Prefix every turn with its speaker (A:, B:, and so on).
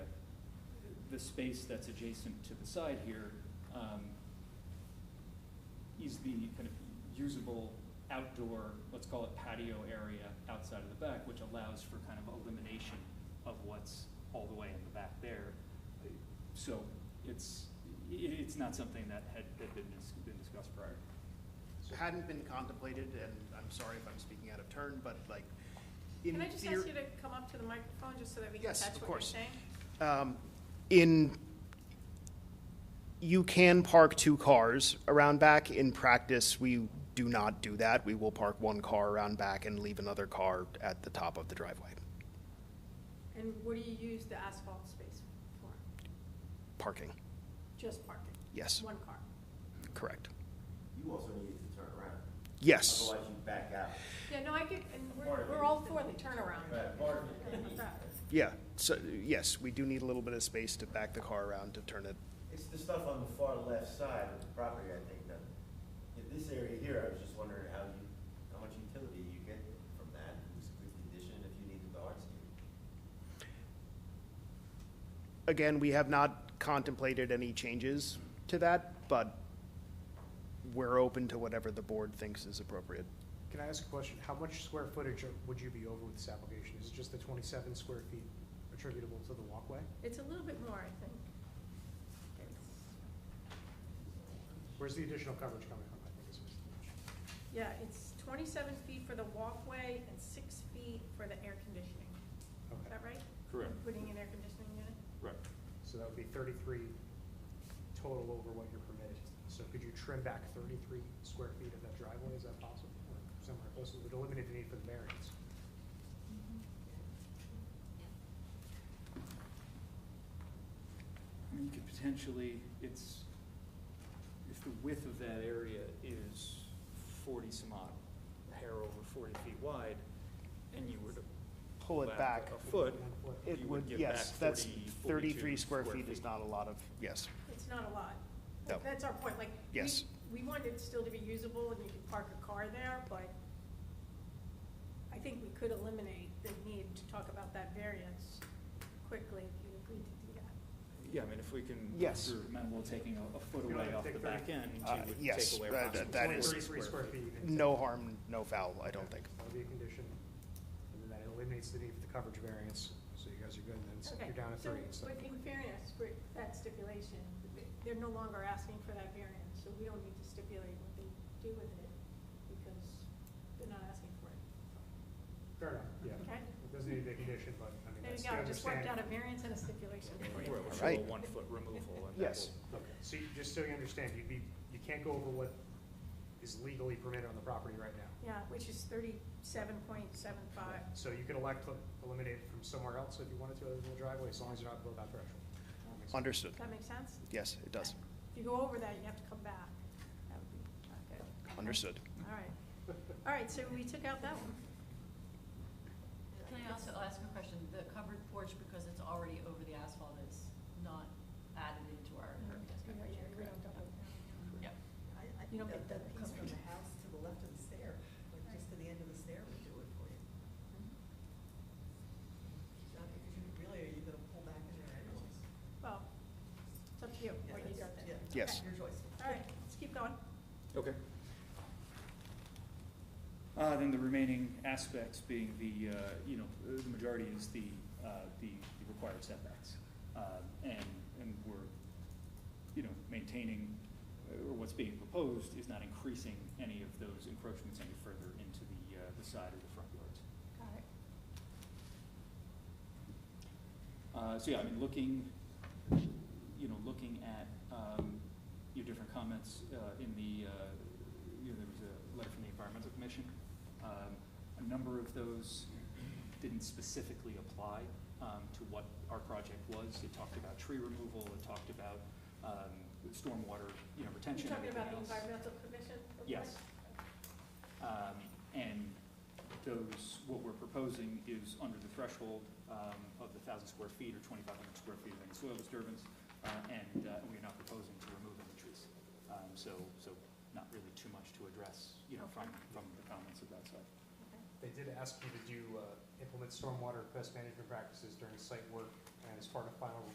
A: the space that's adjacent to the side here um, is the kind of usable outdoor, let's call it patio area outside of the back, which allows for kind of elimination of what's all the way in the back there. So it's, i- it's not something that had, had been dis- been discussed prior.
B: hadn't been contemplated, and I'm sorry if I'm speaking out of turn, but like, in
C: Can I just ask
B: theory-
C: you to come up to the microphone, just so that we can
B: Yes,
C: catch
B: of
C: what you're
B: course.
C: saying?
B: Um, In, you can park two cars around back. In practice, we do not do that. We will park one car around back and leave another car at the top of the driveway.
C: And what do you use the asphalt space for?
B: Parking,
C: Just parking?
B: yes,
C: One car?
B: correct.
D: You also need to turn around.
B: Yes,
D: Otherwise you back out.
C: Yeah, no, I get, and we're, we're all for the turnaround.
B: yeah, so, yes, we do need a little bit of space to back the car around to turn it.
D: It's the stuff on the far left side of the property, I think, that, in this area here, I was just wondering how you, how much utility you get from that, if it's a good condition, if you needed the hardscape.
B: Again, we have not contemplated any changes to that, but we're open to whatever the board thinks is appropriate.
E: Can I ask a question? How much square footage are- would you be over with this application? Is it just the twenty-seven square feet attributable to the walkway?
C: It's a little bit more, I think.
E: Where's the additional coverage coming from, I think is.
C: Yeah, it's twenty-seven feet for the walkway and six feet for the air conditioning. Is
E: Okay,
C: that right?
A: Correct,
C: Putting an air conditioning unit?
A: right.
E: so that would be thirty-three total over what you're permitted. So could you trim back thirty-three square feet of that driveway? Is that possible? Or somewhere close, it would eliminate the need for the variance.
A: I mean, You could potentially, it's, if the width of that area is forty some odd, a hair over forty feet wide, and you were to
B: Pull it back.
A: A foot,
E: One foot.
B: It
A: you
B: would,
A: would get
B: yes,
A: back
B: that's
A: 40, 42
B: thirty-three square
A: square
B: feet is
A: feet.
B: not a lot of, yes,
C: It's not a lot.
B: No.
C: That's our point, like. we-
B: Yes.
C: We want it still to be usable and you can park a car there, but I think we could eliminate the need to talk about that variance quickly if you agreed to do that.
A: yeah, I mean, if we can.
B: Yes.
A: We're amenable to taking a, a foot
E: You don't
A: away
E: have to
A: off the
E: take
A: back
E: thirty-
A: end,
B: Uh,
A: you would
B: yes,
A: take away
B: that- that-
A: approximately
B: that is-
A: 23
E: Thirty-three square feet. you can take.
B: no harm, no foul, I don't think.
E: That'll be a condition, and then that eliminates the need for the coverage variance, so you guys are good, and then it's- you're down at
C: So,
E: three instead of
C: but in fairness, for that stipulation, they're no longer asking for that variance, so we don't need to stipulate what they do with it because they're not asking for it.
E: Fair enough, yeah.
C: Okay?
E: It doesn't need to be a condition, but I mean,
C: There
E: that's
C: you
E: the
C: go, I just worked
E: understanding.
C: out a variance and a stipulation for you.
A: Well, we'll show a
B: Right.
A: one foot removal and that
B: Yes.
A: will-
E: Okay, So you, just so you understand, you'd be, you can't go over what is legally permitted on the property right now.
C: Yeah, which is thirty-seven point seven five.
E: So you could elect to eliminate it from somewhere else if you wanted to, other than the driveway, as long as you're not below that threshold. That makes sense.
B: Understood,
C: Does that make sense?
B: yes, it does,
C: If you go over that, you have to come back. That would be not good.
B: understood.
C: All right. All right, so we took out that one.
F: Can I also ask a question? The covered porch, because it's already over the asphalt, is not added into our impervious coverage area,
C: We don't
F: correct?
C: double down.
F: Yeah.
G: I, I
C: You
G: think
C: don't
G: that,
C: get
G: that
C: that
G: piece
C: covered.
G: from the house to the left of the stair, like just to the end of the stair would do it for you. Not because you really, are you gonna pull back in there anyways?
C: Well, it's up to you
G: Yeah,
C: what you
G: that's-
C: do there.
G: yeah,
B: Yes.
G: Your choice.
C: All right, let's keep going.
A: Okay. Uh, then the remaining aspects being the, uh, you know, the majority is the, uh, the the required setbacks. Uh, and, and we're, you know, maintaining, uh, or what's being proposed is not increasing any of those encroachments any further into the, uh, the side or the front yards. Uh,
C: Got it.
A: so yeah, I mean, looking, you know, looking at, um, your different comments, uh, in the, uh, you know, there was a letter from the environmental commission. Um, a number of those didn't specifically apply, um, to what our project was. It talked about tree removal, it talked about, um, stormwater, you know,
C: You
A: retention,
C: talking
A: everything
C: about the
A: else.
C: environmental commission? report?
A: Yes. Um, and those, what we're proposing is under the threshold, um, of the thousand square feet or twenty-five hundred square feet of any soil disturbance, uh, and, uh, we're not proposing to remove any trees. Um, so, so not really too much to address, you know, from, from the comments of that side.
E: They did ask you to do, uh, implement stormwater best management practices during site work, and as part of final